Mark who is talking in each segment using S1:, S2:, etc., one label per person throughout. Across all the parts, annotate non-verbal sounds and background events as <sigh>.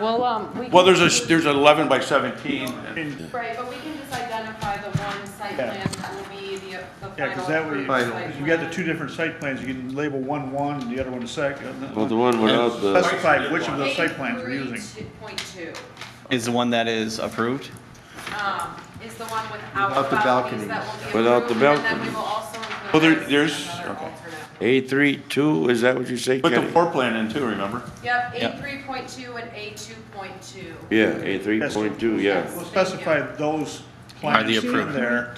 S1: Well, um, we.
S2: Well,
S1: can-
S2: there's a, there's an 11 by 17.
S1: Right, but we can just identify the one site
S3: Yeah.
S1: plan that will be the, the final.
S3: Yeah, because that way,
S1: approved site
S3: because you got the
S1: plan.
S3: two different site plans, you can label one one and the other one a second.
S4: Well, the one without the,
S3: Specify which of those site plans we're using.
S1: 83.2,
S5: is the one that is approved.
S1: um, is the one without
S6: Without the balconies.
S1: balconies that will be approved.
S4: Without the
S1: And then we
S4: balconies.
S1: will also
S2: Well, there-
S1: include. that
S2: there's-
S1: as another
S2: okay.
S1: alternate.
S4: A three, two, is that what you say,
S2: Put the
S4: Kenny?
S2: floor plan in too, remember?
S1: Yep,
S5: Yeah.
S1: eight three point two and eight two point two.
S4: Yeah, A three point two, yeah.
S3: We'll specify those
S7: Are the
S3: plans in
S7: approved?
S3: there.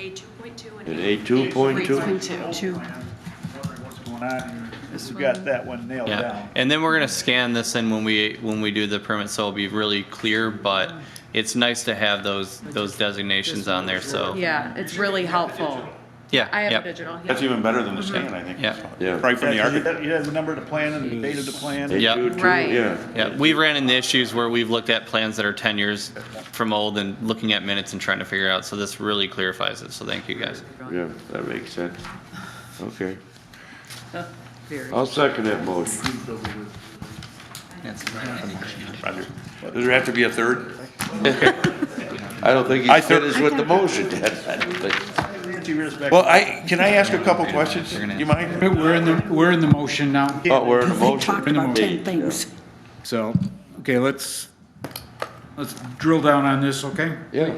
S1: A two point two
S4: And A two point two,
S3: Two. Wondering what's going on here. We've got that one nailed
S7: Yeah,
S3: down.
S7: and then we're gonna scan this in when we, when we do the permit, so it'll be really clear, but it's nice to have those, those designations on there, so.
S8: Yeah, it's really helpful.
S7: Yeah,
S8: I have a
S7: yep,
S8: digital. yeah.
S2: That's even better than the scan, I think.
S7: Mm-hmm. Yeah.
S4: Yeah.
S2: Right from the
S3: Yeah, 'cause you
S2: architect.
S3: have- You have the number of the plan and the date of the plan.
S4: A
S7: Yeah.
S4: two, two,
S8: Right.
S4: yeah.
S7: yeah, we ran into issues where we've looked at plans that are ten years from old and looking at minutes and trying to figure out, so this really clarifies it, so thank you guys.
S4: Yeah, that makes sense. Okay,
S8: Very.
S4: I'll second that motion.
S2: Roger. Does there have to be a third?
S4: I don't think
S2: I
S4: he's
S2: thought-
S4: finished with the motion, <laughs> That's- that's-
S3: Nancy, read us back.
S2: Well, I, can I ask a couple questions?
S7: You're gonna-
S2: You mind?
S9: We're in the, we're in the motion now,
S4: Oh, we're in the
S9: They
S4: motion.
S9: talked about 10
S4: things.
S9: so, okay, let's, let's drill down on this, okay?
S4: Yeah,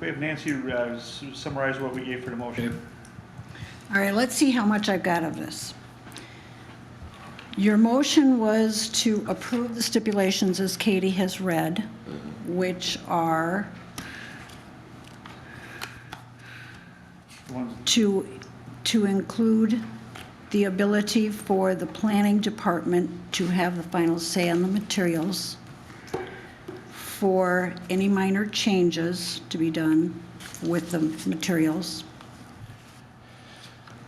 S3: We have Nancy uh, s- summarize what we gave for the motion.
S10: All right, let's see how much I've got of this. Your motion was to approve the stipulations as Katie has read, which are
S3: One-
S10: to, to include the ability for the planning department to have the final say on the materials, for any minor changes to be done with the materials,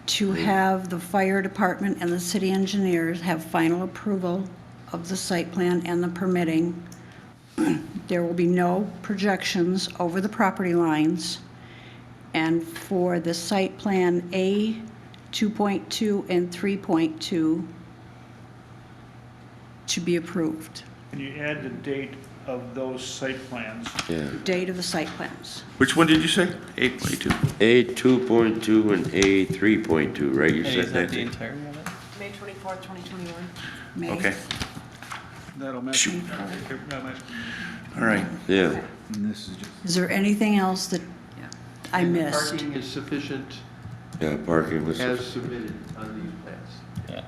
S10: to have the fire department and the city engineers have final approval of the site plan and the permitting. <clears throat> There will be no projections over the property lines. And for the site plan A, 2.2 and 3.2 to be approved,
S3: Can you add the date of those site plans?
S4: yeah.
S10: date of the site plans.
S2: Which one did you say? Eight point two.
S4: A two point two and A three point two, right? You said
S5: Is that the
S4: that.
S5: entirety of it?
S1: May twenty-fourth, twenty twenty-one.
S10: May.
S2: Okay,
S3: That'll match. That'll match.
S2: all right.
S4: Yeah,
S10: Is there anything else that I missed?
S6: Parking is sufficient
S4: yeah, parking was,
S6: as
S4: yeah,
S6: submitted on these plans.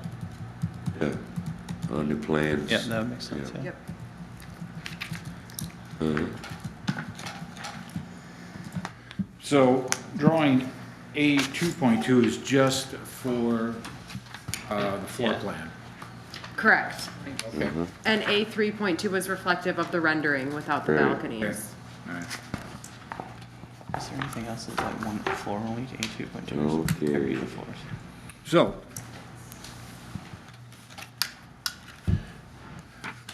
S5: Yeah,
S4: on the plans.
S5: yeah, that makes sense, yeah.
S9: So drawing A 2.2 is just for uh, the floor
S5: Yeah.
S9: plan.
S8: Correct.
S9: Okay.
S2: Mm-hmm.
S9: All
S8: And A three point two was reflective of the rendering without the
S4: Right.
S8: balconies.
S9: right.
S5: Is there anything else that's like one floor only, A two point two?
S4: Okay.
S5: floors.
S9: So,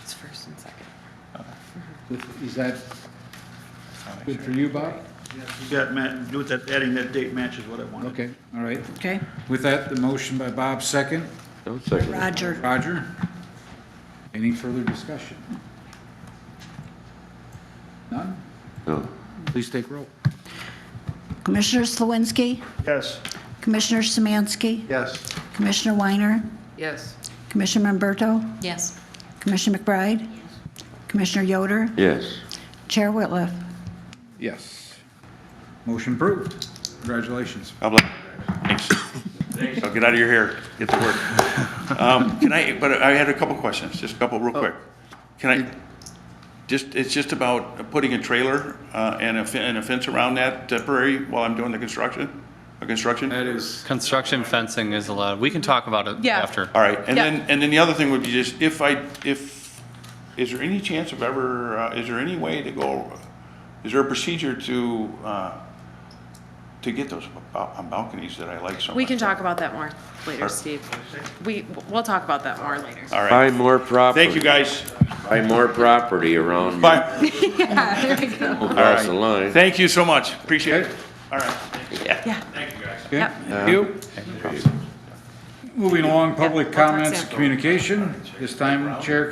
S8: It's first and second.
S9: is that good for you, Bob?
S3: You got, Matt, do it that, adding that date matches what I wanted.
S9: Okay, all right.
S10: Okay,
S9: With that, the motion by Bob, second.
S4: I'll second that.
S10: Roger.
S9: Roger? Any further discussion? None?
S4: No.
S9: Please take roll.
S10: Commissioner Slawinski,
S3: Yes.
S10: Commissioner Samansky,
S6: Yes.
S10: Commissioner Weiner,
S8: Yes.
S10: Commissioner Umberto,
S8: Yes.
S10: Commissioner McBride, Commissioner Yoder,
S4: Yes.
S10: Chair Whitliff.
S9: Yes. Motion approved. Congratulations.
S2: God bless. Thanks. I'll get out of your hair, get to work. Um, Can I, but I had a couple questions, just a couple real quick. Can I, just, it's just about putting a trailer uh, and a fe- and a fence around that temporary while I'm doing the construction, the construction?
S9: That is,
S7: Construction fencing is allowed, we can talk about it
S8: Yeah.
S7: after.
S2: All right, and
S8: Yeah.
S2: then, and then the other thing would be just, if I, if, is there any chance of ever, uh, is there any way to go, is there a procedure to, uh, to get those ba- balconies that I like so much?
S8: We can talk about that more later,
S2: Sure.
S8: Steve. We, we'll talk about that more later.
S2: All right,
S4: Buy more property.
S2: thank you, guys.
S4: Buy more property around
S2: Bye.
S8: Yeah, <laughs> there we go.
S4: across the line.
S2: Thank you so much, appreciate it. All right,
S8: Yeah.
S2: thank you, guys.
S9: okay,
S8: Yep.
S9: thank you. Moving along, public
S8: Yeah, one more
S9: comments,
S8: sample.
S9: communication. This time, Chair